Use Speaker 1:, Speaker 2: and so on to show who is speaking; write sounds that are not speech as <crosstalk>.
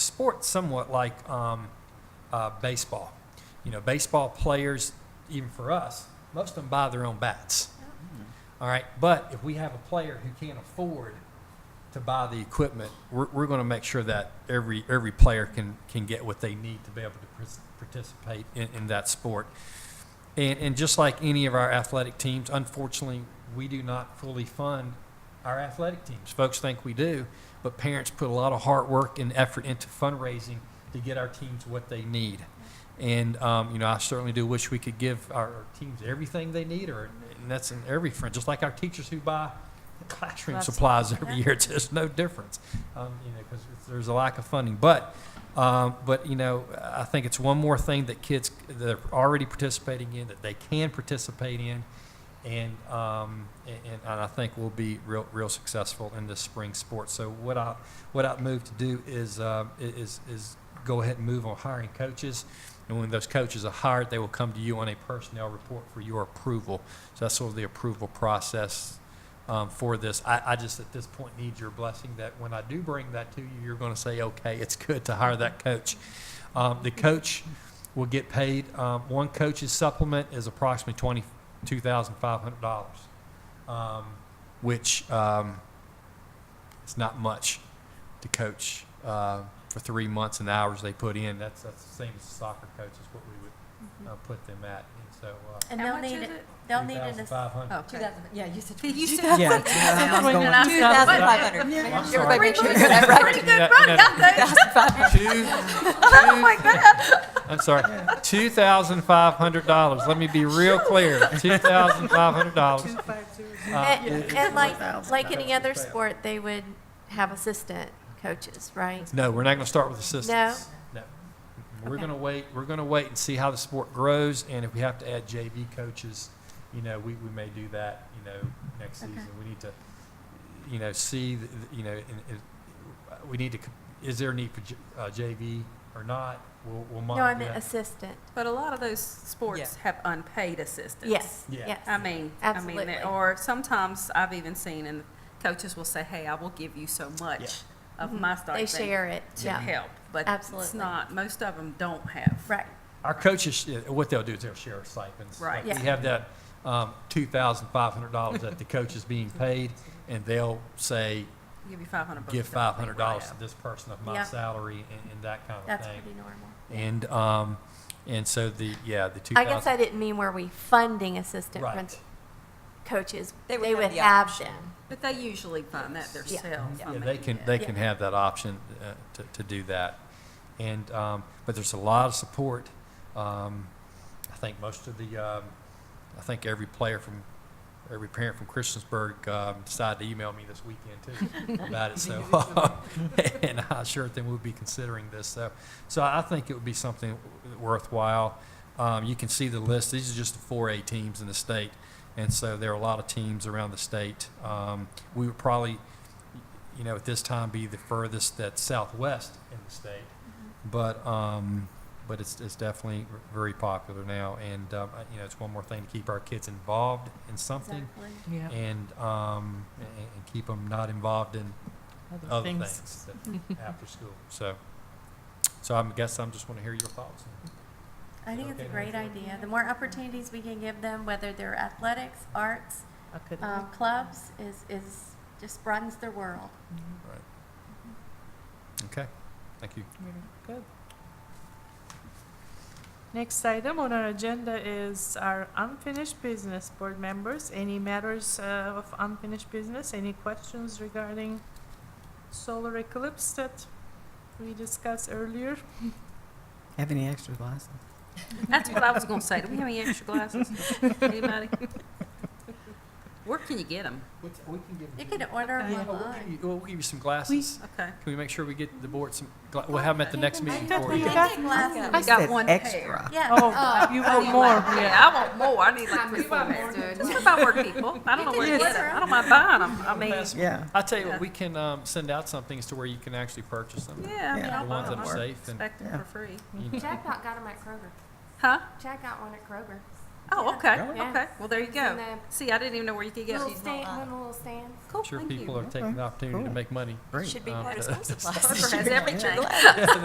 Speaker 1: sport's somewhat like um, uh, baseball. You know, baseball players, even for us, most of them buy their own bats. All right, but if we have a player who can't afford to buy the equipment, we're, we're going to make sure that every every player can can get what they need to be able to pris- participate in, in that sport. And, and just like any of our athletic teams, unfortunately, we do not fully fund our athletic teams. Folks think we do, but parents put a lot of hard work and effort into fundraising to get our teams what they need. And, um, you know, I certainly do wish we could give our teams everything they need, or, and that's in every front, just like our teachers who buy classroom
Speaker 2: Lots of-
Speaker 1: supplies every
Speaker 2: yeah.
Speaker 1: year. <laughs> It's just no difference, um, you know, because there's a lack of funding. But, um, but, you know, I think it's one more thing that kids that are already participating in, that they can participate in, and um, and, and I think we'll be real real successful in this spring sport. So what I what I move to do is uh, is is go ahead and move on hiring coaches, and when those coaches are hired, they will come to you on a personnel report for your approval. So that's sort of the approval process. Um, for this, I, I just at this point need your blessing that when I do bring that to you, you're going to say, okay, it's good to hire that coach. Um, the coach will get paid. Um, one coach's supplement is approximately twenty two thousand five hundred dollars, um, which um, it's not much to coach uh, for three months and the hours they put in. That's that's the same as a soccer coach is what we would uh, put them at, and so uh,
Speaker 2: And
Speaker 3: How
Speaker 2: they'll
Speaker 3: much
Speaker 2: need
Speaker 3: is
Speaker 2: it, Oh, Mm-hmm. they'll
Speaker 3: it?
Speaker 1: three
Speaker 2: need an
Speaker 1: thousand
Speaker 2: assistant.
Speaker 1: five hundred.
Speaker 3: Okay.
Speaker 4: yeah, you said
Speaker 3: Did you
Speaker 2: <laughs>
Speaker 4: 22,000.
Speaker 3: say-
Speaker 4: Yeah, it's- yeah, I was going-
Speaker 3: Two
Speaker 1: I'm
Speaker 3: thousand five hundred.
Speaker 1: sorry. <laughs>
Speaker 4: Everybody make sure you
Speaker 3: Pretty
Speaker 4: get that
Speaker 3: good,
Speaker 4: right.
Speaker 3: pretty good run, got that.
Speaker 1: Two,
Speaker 2: <laughs>
Speaker 3: Oh my God.
Speaker 1: I'm sorry, two thousand five hundred dollars. Let me be real
Speaker 2: <laughs>
Speaker 1: clear, two thousand five hundred dollars.
Speaker 2: And and like, like any other sport, they would have assistant coaches, right?
Speaker 1: No, we're not going to start with assistants. No. We're
Speaker 2: Okay.
Speaker 1: going to wait, we're going to wait and see how the sport grows, and if we have to add JV coaches, you know, we, we may do that, you know, next
Speaker 2: Okay.
Speaker 1: season. We need to, you know, see, th- th- you know, and, and uh, we need to, c- is there a need for J- uh, JV or not? We'll, we'll
Speaker 2: No, I
Speaker 1: monitor
Speaker 2: meant
Speaker 1: that.
Speaker 2: assistant.
Speaker 3: But a lot of those sports
Speaker 4: Yeah.
Speaker 3: have unpaid assistants.
Speaker 2: Yes, Oh,
Speaker 1: Yeah.
Speaker 2: yes.
Speaker 3: I mean, I mean,
Speaker 2: Absolutely.
Speaker 3: that- or sometimes I've even seen, and coaches will say, hey, I will give you so much of my
Speaker 2: Mm-hmm. They
Speaker 3: stipend
Speaker 2: share it,
Speaker 3: to
Speaker 2: yeah.
Speaker 3: help. But it's
Speaker 2: Absolutely.
Speaker 3: not, most of them don't have.
Speaker 2: Right,
Speaker 1: Our coaches, uh, what they'll do is they'll share stipends.
Speaker 3: Right.
Speaker 1: Like We have that um, two thousand five hundred dollars that the coach is
Speaker 2: <laughs>
Speaker 1: being paid, and they'll say,
Speaker 3: Give you 500 bucks.
Speaker 1: give
Speaker 3: to help
Speaker 1: five
Speaker 3: me
Speaker 1: hundred
Speaker 3: where I
Speaker 1: dollars to
Speaker 3: am.
Speaker 1: this person of my
Speaker 2: Yeah.
Speaker 1: salary and, and that kind of
Speaker 2: that's
Speaker 1: thing.
Speaker 2: pretty normal.
Speaker 1: And um, and so the yeah the two
Speaker 2: I guess
Speaker 1: thousand
Speaker 2: I didn't mean were we funding assistant
Speaker 1: right.
Speaker 2: prin- coaches.
Speaker 4: They
Speaker 2: They
Speaker 4: would have
Speaker 2: would
Speaker 4: the
Speaker 2: have
Speaker 4: option.
Speaker 2: them.
Speaker 3: But they usually find that
Speaker 2: Yeah.
Speaker 3: themselves. I
Speaker 1: Yeah,
Speaker 3: mean,
Speaker 1: they can
Speaker 3: yeah.
Speaker 1: they
Speaker 2: Yeah.
Speaker 1: can have that option uh, to, to do that. And um, but there's a lot of support. Um, I think most of the um, I think every player from every parent from Christiansburg um, decided to email me this weekend <laughs> too about it. So and I sure think we'll be considering this. So so I think it would be something worthwhile. Um, you can see the list. These are just the four A teams in the state, and so there are a lot of teams around the state. Um, we would probably, you know, at this time be the furthest that's southwest in the state, but um, but it's, it's definitely very popular now, and um, you know, it's one more thing to keep our kids involved in something
Speaker 2: Exactly.
Speaker 1: and um, and, and keep them not involved in
Speaker 4: Other
Speaker 1: other things that- after school. So, so I guess I'm just want to hear your thoughts.
Speaker 2: I think it's a
Speaker 1: Okay.
Speaker 2: great idea. The more opportunities we can give them, whether they're athletics, arts,
Speaker 4: I couldn't-
Speaker 2: um, clubs, is, is, just broadens their world.
Speaker 1: Okay, thank you.
Speaker 5: Good. Next item on our agenda is our unfinished business. Board members, any matters uh, of unfinished business? Any questions regarding solar eclipse that we discussed
Speaker 4: <laughs>
Speaker 5: earlier?
Speaker 4: Have any extra glasses?
Speaker 3: That's what I was going to say. Do we have any extra glasses? Anybody? Where can you get them?
Speaker 1: We can give
Speaker 2: You can order
Speaker 5: Okay.
Speaker 2: them
Speaker 5: Yeah,
Speaker 2: online.
Speaker 1: we'll give you some glasses.
Speaker 3: Okay.
Speaker 1: Can we Oh, make sure we get the board some, gla- we'll have them at the next meeting
Speaker 5: thought
Speaker 1: for
Speaker 5: we
Speaker 1: you.
Speaker 5: had-
Speaker 2: Tinted glasses.
Speaker 3: I got one pair.
Speaker 2: Yeah.
Speaker 5: Oh,
Speaker 2: uh,
Speaker 5: you want
Speaker 4: <laughs>
Speaker 5: more?
Speaker 3: Yeah, I want more. I need like three, four more. Just if I were people, I don't know where to get them. I don't mind buying them. I mean,
Speaker 4: Yeah.
Speaker 1: I'll tell you what, we can um, send out some things to where you can actually purchase them.
Speaker 3: yeah, I mean,
Speaker 4: Yeah.
Speaker 3: I'll
Speaker 1: The
Speaker 3: buy
Speaker 1: ones
Speaker 3: them.
Speaker 1: that
Speaker 3: I
Speaker 1: are safe and,
Speaker 3: expect them
Speaker 4: Yeah.
Speaker 3: for free.
Speaker 1: you know.
Speaker 6: Jack got, got 'em at Kroger.
Speaker 3: Huh?
Speaker 6: Jack got one at Kroger.
Speaker 3: Oh, okay,
Speaker 6: Yeah.
Speaker 3: okay. Well, there you
Speaker 6: And
Speaker 3: go.
Speaker 6: the
Speaker 3: See, I didn't even know where you could get
Speaker 6: little
Speaker 3: them.
Speaker 6: stand, one of the little stands.
Speaker 3: Cool,
Speaker 1: Sure
Speaker 3: thank you.
Speaker 1: people are taking the opportunity to
Speaker 4: Cool.
Speaker 1: make money. <laughs>
Speaker 4: Great.
Speaker 1: um,
Speaker 4: Should be part of school
Speaker 3: Kroger has everything.